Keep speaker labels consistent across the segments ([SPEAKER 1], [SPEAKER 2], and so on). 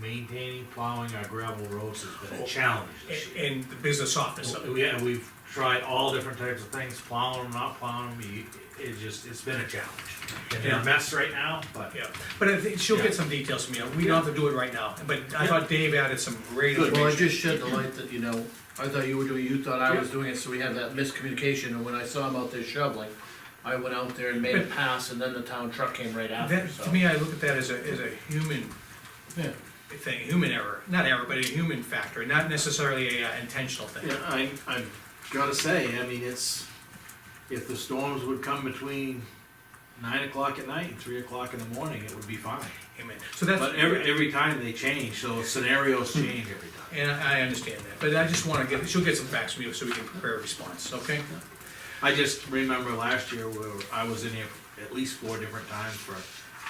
[SPEAKER 1] maintaining plowing our gravel roads has been a challenge this year.
[SPEAKER 2] in, in the business office.
[SPEAKER 1] So, Yeah, we've tried all different types of things, plowing them, not plowing them, you- it just, it's been a challenge. And they're a mess right now, but
[SPEAKER 2] Yeah, but I think she'll
[SPEAKER 1] Yeah.
[SPEAKER 2] get some details from you, we don't have to do it right now, but I thought Dave added some great
[SPEAKER 1] Good.
[SPEAKER 3] Well, I
[SPEAKER 2] information.
[SPEAKER 3] just shed the light that, you know, I thought you were doing, you thought I was doing it, so we had that miscommunication, and when I saw him out there shoveling, I went out there and made a pass, and then the town truck came right after,
[SPEAKER 2] That,
[SPEAKER 3] so.
[SPEAKER 2] to me, I look at that as a, as a human
[SPEAKER 3] Yeah.
[SPEAKER 2] thing, human error, not error, but a human factor, not necessarily a uh, intentional thing.
[SPEAKER 1] Yeah, I, I've gotta say, I mean, it's, if the storms would come between nine o'clock at night and three o'clock in the morning, it would be fine.
[SPEAKER 2] Amen. So that's,
[SPEAKER 1] But every, every time they change, so scenarios change every time.
[SPEAKER 2] and I I understand that, but I just wanna get, she'll get some facts from you so we can prepare a response, okay?
[SPEAKER 1] I just remember last year where I was in here at least four different times for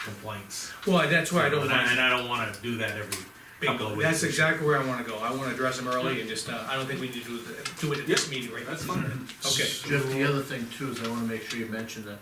[SPEAKER 1] complaints.
[SPEAKER 2] Well, that's why I don't
[SPEAKER 1] And I, and
[SPEAKER 2] want,
[SPEAKER 1] I don't wanna do that every couple of weeks.
[SPEAKER 2] that's exactly where I wanna go, I wanna address them early and just, uh, I don't think we need to do, the- do it at this meeting right now.
[SPEAKER 1] That's fine.
[SPEAKER 2] Okay.
[SPEAKER 3] Jeff, the other thing too is I wanna make sure you mention that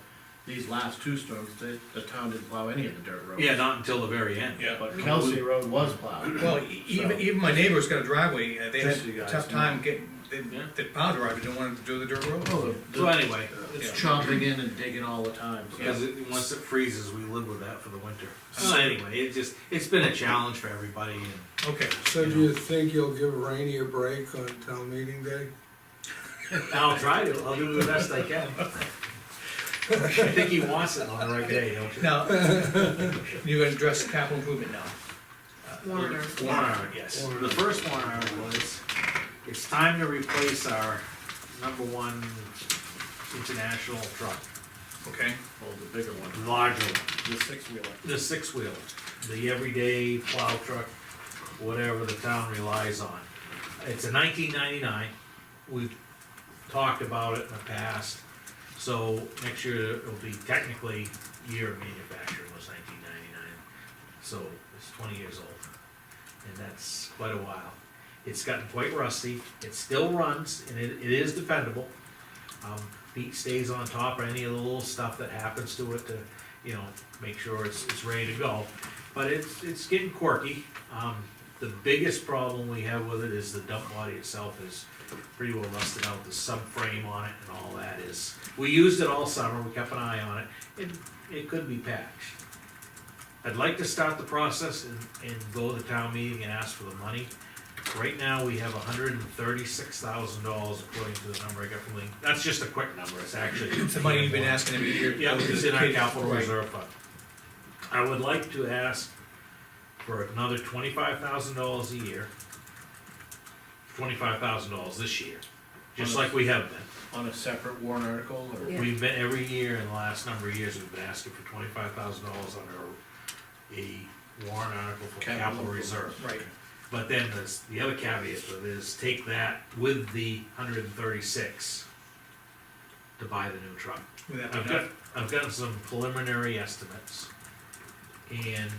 [SPEAKER 3] these last two storms, the, the town didn't plow any of the dirt roads.
[SPEAKER 1] Yeah, not until the very end.
[SPEAKER 2] Yeah.
[SPEAKER 3] But Kelsey Road was plowed.
[SPEAKER 2] Well, e- even, even my neighbor's got a driveway, uh, they had
[SPEAKER 3] Just so you
[SPEAKER 2] a
[SPEAKER 3] guys
[SPEAKER 2] tough
[SPEAKER 3] know.
[SPEAKER 2] time getting, they,
[SPEAKER 1] Yeah.
[SPEAKER 2] the power driver didn't want to do the dirt road.
[SPEAKER 3] Oh, the-
[SPEAKER 1] So anyway,
[SPEAKER 3] It's
[SPEAKER 2] Yeah.
[SPEAKER 3] chopping in and digging all the time, so.
[SPEAKER 1] because it, once it freezes, we live with that for the winter. So anyway, it just, it's been a challenge for everybody and
[SPEAKER 2] Okay,
[SPEAKER 4] So do you think you'll give Rainey a break on town meeting day?
[SPEAKER 1] I'll try to, I'll do the best I can. I think he wants it on the right day, don't you?
[SPEAKER 2] now, you're gonna address capital improvement now.
[SPEAKER 1] Warrant
[SPEAKER 2] Warrant article, yes.
[SPEAKER 1] The first warrant article is, it's time to replace our number one international truck,
[SPEAKER 2] Okay,
[SPEAKER 3] Oh, the bigger one,
[SPEAKER 1] the larger one.
[SPEAKER 3] the six wheeler.
[SPEAKER 1] the six wheeler, the everyday plow truck, whatever the town relies on. It's a nineteen ninety-nine, we've talked about it in the past, so next year it'll be technically year of manufacturing was nineteen ninety-nine, so it's twenty years old. And that's quite a while. It's gotten quite rusty, it still runs, and it, it is dependable. Um, Pete stays on top of any of the little stuff that happens to it to, you know, make sure it's, it's ready to go. But it's, it's getting quirky. Um, the biggest problem we have with it is the dump body itself is pretty well rusted out. The subframe on it and all that is, we used it all summer, we kept an eye on it. It, it could be patched. I'd like to start the process and, and go to town meeting and ask for the money. Right now, we have hundred and thirty-six thousand dollars according to the number I got from Lee. That's just a quick number, it's actually.
[SPEAKER 2] it's the money you've been asking every year.
[SPEAKER 1] Yeah, it's in our capital
[SPEAKER 2] Right.
[SPEAKER 1] reserve fund. I would like to ask for another twenty-five thousand dollars a year. Twenty-five thousand dollars this year, just like we have been.
[SPEAKER 3] On a separate warrant article, or?
[SPEAKER 5] Yeah.
[SPEAKER 1] We've been, every year in the last number of years, we've been asking for twenty-five thousand dollars under a warrant article for
[SPEAKER 3] Capital
[SPEAKER 1] capital reserve.
[SPEAKER 2] Right,
[SPEAKER 1] But then there's, the other caveat to it is take that with the hundred and thirty-six to buy the new truck.
[SPEAKER 2] would that be
[SPEAKER 1] I've got,
[SPEAKER 2] enough?
[SPEAKER 1] I've gotten some preliminary estimates. And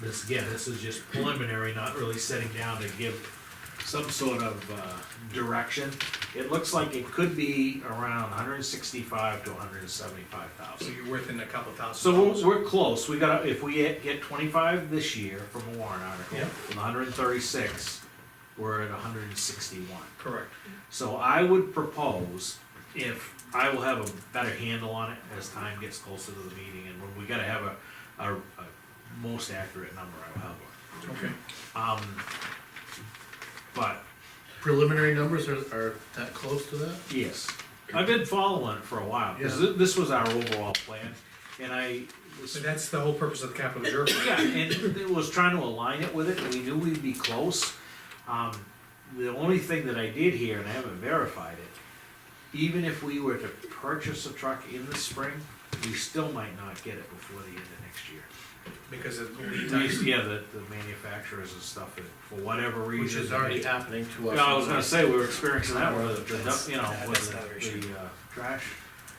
[SPEAKER 1] this, again, this is just preliminary, not really sitting down to give some sort of, uh, direction. It looks like it could be around hundred and sixty-five to hundred and seventy-five
[SPEAKER 2] So
[SPEAKER 1] thousand.
[SPEAKER 2] you're worth in a couple thousand
[SPEAKER 1] So
[SPEAKER 2] dollars.
[SPEAKER 1] we're, we're close, we gotta, if we get get twenty-five this year from a warrant article,
[SPEAKER 2] Yeah.
[SPEAKER 1] and hundred and thirty-six, we're at hundred and sixty-one.
[SPEAKER 2] Correct,
[SPEAKER 1] So I would propose, if, I will have a better handle on it as time gets closer to the meeting, and we- we gotta have a, a, a most accurate number, I will have one.
[SPEAKER 2] okay.
[SPEAKER 1] Um, but,
[SPEAKER 3] Preliminary numbers are, are that close to that?
[SPEAKER 1] yes, I've been following it for a while, cause
[SPEAKER 3] Yeah.
[SPEAKER 1] thi- this was our overall plan, and I,
[SPEAKER 2] So that's the whole purpose of the capital reserve. fund.
[SPEAKER 1] Yeah, and it was trying to align it with it, and we knew we'd be close. Um, the only thing that I did here, and I haven't verified it, even if we were to purchase a truck in the spring, we still might not get it before the end of next year.
[SPEAKER 2] Because of the lead
[SPEAKER 1] At least,
[SPEAKER 2] time.
[SPEAKER 1] yeah, the, the manufacturers and stuff, and for whatever reason.
[SPEAKER 3] Which is already happening to
[SPEAKER 1] Yeah,
[SPEAKER 3] us.
[SPEAKER 1] I was gonna say, we were experiencing that with the,
[SPEAKER 2] That's-
[SPEAKER 1] the, you know,
[SPEAKER 2] yeah, that's
[SPEAKER 1] with
[SPEAKER 2] another
[SPEAKER 1] the,
[SPEAKER 2] issue.
[SPEAKER 1] the, uh, trash.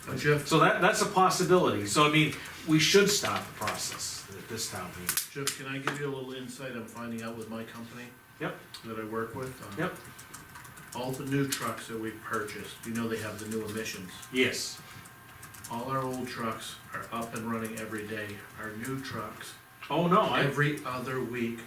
[SPEAKER 3] But Jeff,
[SPEAKER 1] So that, that's a possibility, so I mean, we should stop the process at this town meeting.
[SPEAKER 3] Jeff, can I give you a little insight I'm finding out with my company?
[SPEAKER 1] Yep.
[SPEAKER 3] That I work with? Um,
[SPEAKER 1] Yep.
[SPEAKER 3] All the new trucks that we've purchased, you know they have the new emissions.
[SPEAKER 1] Yes.
[SPEAKER 3] All our old trucks are up and running every day. Our new trucks,
[SPEAKER 1] Oh, no, I,
[SPEAKER 3] every other week,